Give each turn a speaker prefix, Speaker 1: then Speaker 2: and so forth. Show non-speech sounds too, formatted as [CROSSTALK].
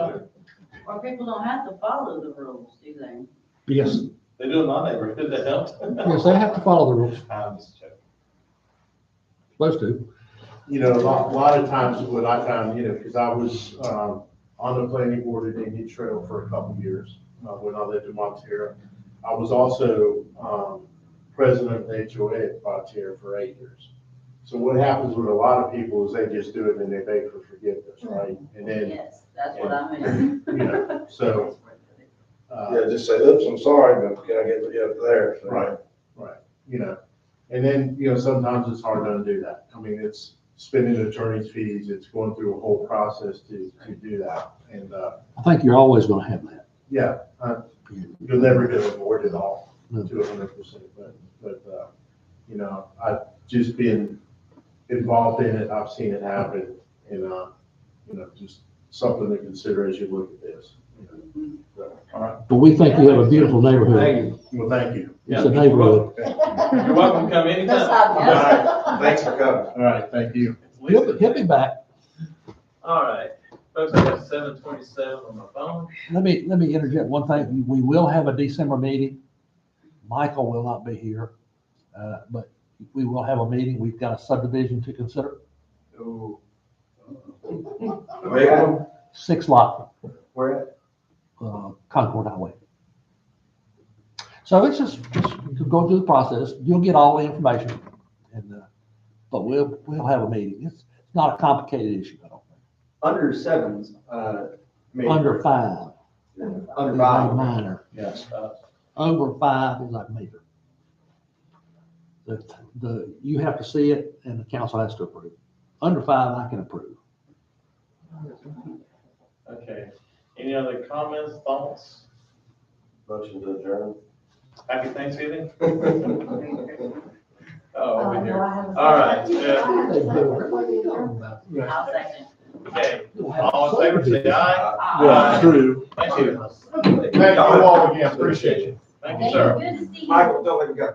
Speaker 1: Or people don't have to follow the rules, do they?
Speaker 2: Yes,
Speaker 3: They do in my neighborhood, they don't.
Speaker 2: [LAUGHS] yes, they have to follow the rules,
Speaker 3: I'm just joking.
Speaker 2: supposed to.
Speaker 4: you know, a lot, a lot of times what I found, you know, because I was, um, on the planning board at Indian Trail for a couple years, uh, when I lived in Montero. I was also, um, president of the HOA at Montero for eight years. So what happens with a lot of people is they just do it and they beg for forgiveness, right? And then,
Speaker 1: Yes, that's what I mean.
Speaker 4: you know,
Speaker 1: [LAUGHS]
Speaker 4: so, uh,
Speaker 5: Yeah, just say, oops, I'm sorry, but can I get you up there? So,
Speaker 4: Right, right, you know, and then, you know, sometimes it's hard to undo that. I mean, it's spending attorney's fees, it's going through a whole process to, to do that. And, uh,
Speaker 2: I think you're always gonna have that.
Speaker 4: yeah, uh, you'll never get avoid it all to a hundred percent, but, but, uh, you know, I've just been involved in it, I've seen it happen, and, uh, you know, just something to consider as you look at this. you know.
Speaker 2: But we think we have a beautiful neighborhood.
Speaker 3: Thank you.
Speaker 4: Well, thank you.
Speaker 2: It's a neighborhood.
Speaker 3: You're welcome to come anytime.
Speaker 4: All right,
Speaker 5: Thanks for coming.
Speaker 4: all right, thank you.
Speaker 2: He'll, be- he'll be back.
Speaker 3: All right, folks, I got seven twenty-seven on my phone.
Speaker 2: Let me, let me interject one thing. We will have a December meeting. Michael will not be here, uh, but we will have a meeting. We've got a subdivision to consider,
Speaker 5: Where,
Speaker 2: six lot
Speaker 5: where at?
Speaker 2: uh, Concord Highway. So it's just, just to go through the process, you'll get all the information, and, uh, but we'll, we'll have a meeting. It's not a complicated issue, I don't think.
Speaker 6: Under sevens, uh, maybe.
Speaker 2: Under five
Speaker 6: Under
Speaker 2: is like
Speaker 6: five.
Speaker 2: minor,
Speaker 6: Yes.
Speaker 2: over five is like major. The, the, you have to see it, and the council has to approve. Under five, I can approve.
Speaker 3: Okay, any other comments, thoughts?
Speaker 5: Motion to adjourn.
Speaker 3: Happy Thanksgiving?
Speaker 7: Oh,
Speaker 3: Oh, over
Speaker 7: Uh, no,
Speaker 3: here.
Speaker 7: I haven't-
Speaker 3: All right, yeah.
Speaker 7: I haven't-
Speaker 2: What are you talking about?
Speaker 1: I'll second.
Speaker 3: Okay, all in favor, say aye.
Speaker 4: Yeah, true.
Speaker 3: Thank you.
Speaker 4: Uh, Thank you all again, appreciate it.
Speaker 3: Thank you,
Speaker 7: Thank
Speaker 3: sir.
Speaker 7: you. Good to see you.
Speaker 5: Michael, don't let me go.